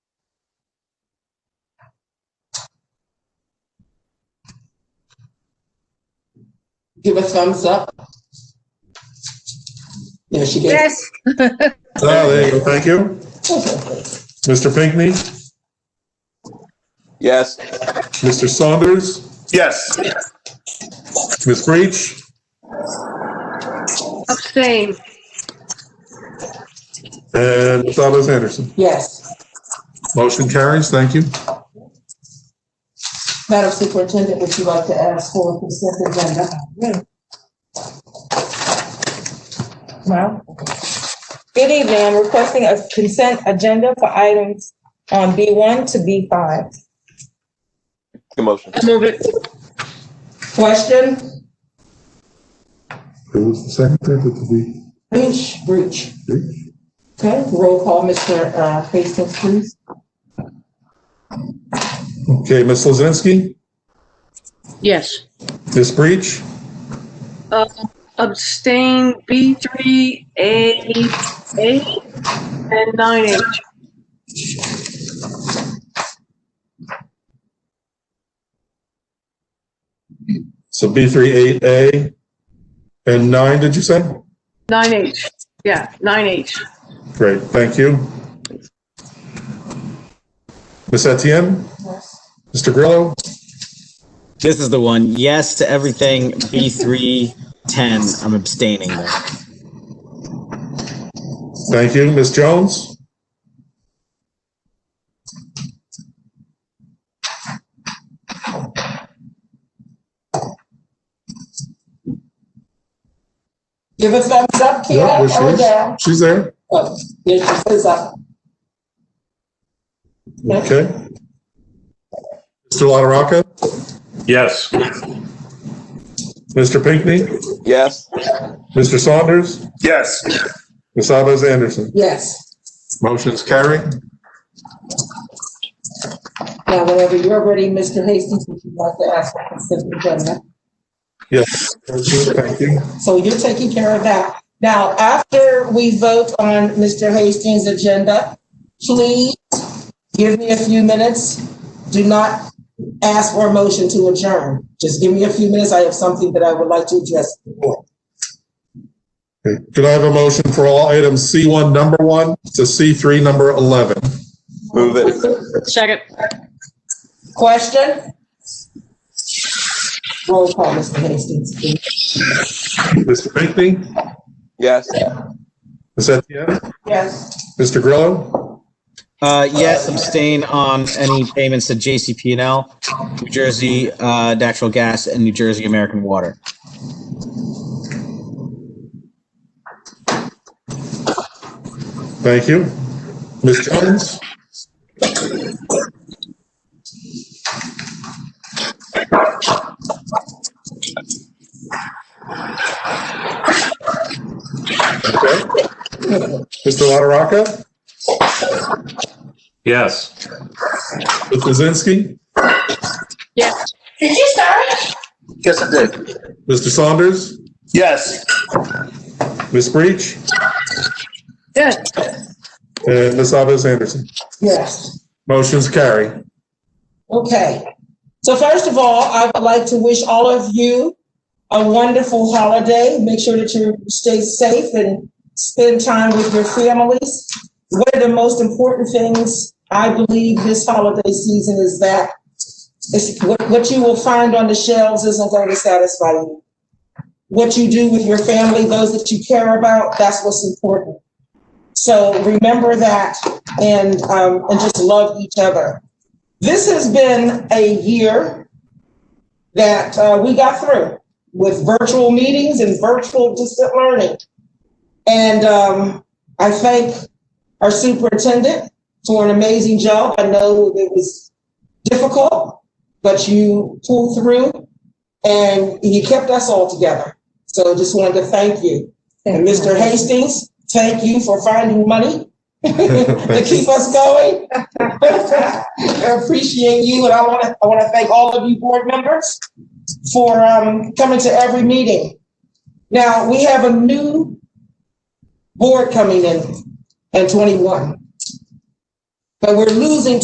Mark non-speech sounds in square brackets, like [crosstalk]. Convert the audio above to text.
give a thumbs up? Yeah, she gave. Yes, Oh, there you go. Thank you. Mr. Pinckney, Yes. Mr. Saunders, Yes. Ms. Breach, abstain. and Ms. Alves Anderson. Yes. Motion carries. Thank you. Madam Superintendent, would you like to ask for a consent agenda? Wow. Good evening. I'm requesting a consent agenda for items on B1 to B5. Good motion. Move it. Question? Who was the secretary? Did we- Breach, breach. Okay, roll call, Mr. uh, Hastings, please. Okay, Ms. Lozinski, Yes. Ms. Breach, Uh, Abstain B3, A, A, and 9H. so B38A, and nine, did you say? 9H, yeah, 9H. Great, thank you. Ms. Etienne? Mr. Grillo? This is the one. Yes to everything. B310. I'm abstaining though. Thank you. Ms. Jones? Give a thumbs up, Yep, Kiara, there or she down? is. She's there. Oh, There she says up. Okay. Mr. LaRocca? Yes. Mr. Pinckney? Yes. Mr. Saunders? Yes. Ms. Alves Anderson? Yes. Motion's carried. Now, whenever you're ready, Mr. Hastings, would you like to ask for consent agenda? Yes, thank you. So you're taking care of that. Now, after we vote on Mr. Hastings' agenda, please give me a few minutes. Do not ask for a motion to adjourn. Just give me a few minutes. I have something that I would like to address. the board. Okay. Could I have a motion for all items C1, number one, to C3, number 11? Move it. Second. Question? Roll call, Mr. Hastings. please. Mr. Pinckney? Yes. Ms. Etienne? Yes. Mr. Grillo? Uh, yes, abstain on any payments to JCP&L, New Jersey, uh, natural gas and New Jersey American water. Thank you. Ms. Jones? Okay. Mr. LaRocca? Yes. Ms. Lozinski? Yes. Yes, I did. Mr. Saunders? Yes. Ms. Breach? Yes. And Ms. Alves Anderson? Yes. Motion's carry. Okay, so first of all, I would like to wish all of you a wonderful holiday. Make sure that you stay safe and spend time with your families. One of the most important things, I believe, this holiday season is that it's what, what you will find on the shelves isn't going to satisfy you. What you do with your family, those that you care about, that's what's important. So remember that and, um, and just love each other. This has been a year that uh, we got through with virtual meetings and virtual distant learning. And um, I thank our superintendent for an amazing job. I know it was difficult, but you pulled through and you kept us all together. So just wanted to thank you. And Mr. Hastings, thank you for finding money [laughs] to keep us going. I appreciate you, and I want to, I want to thank all of you board members for um, coming to every meeting. Now, we have a new board coming in, in 21. But we're losing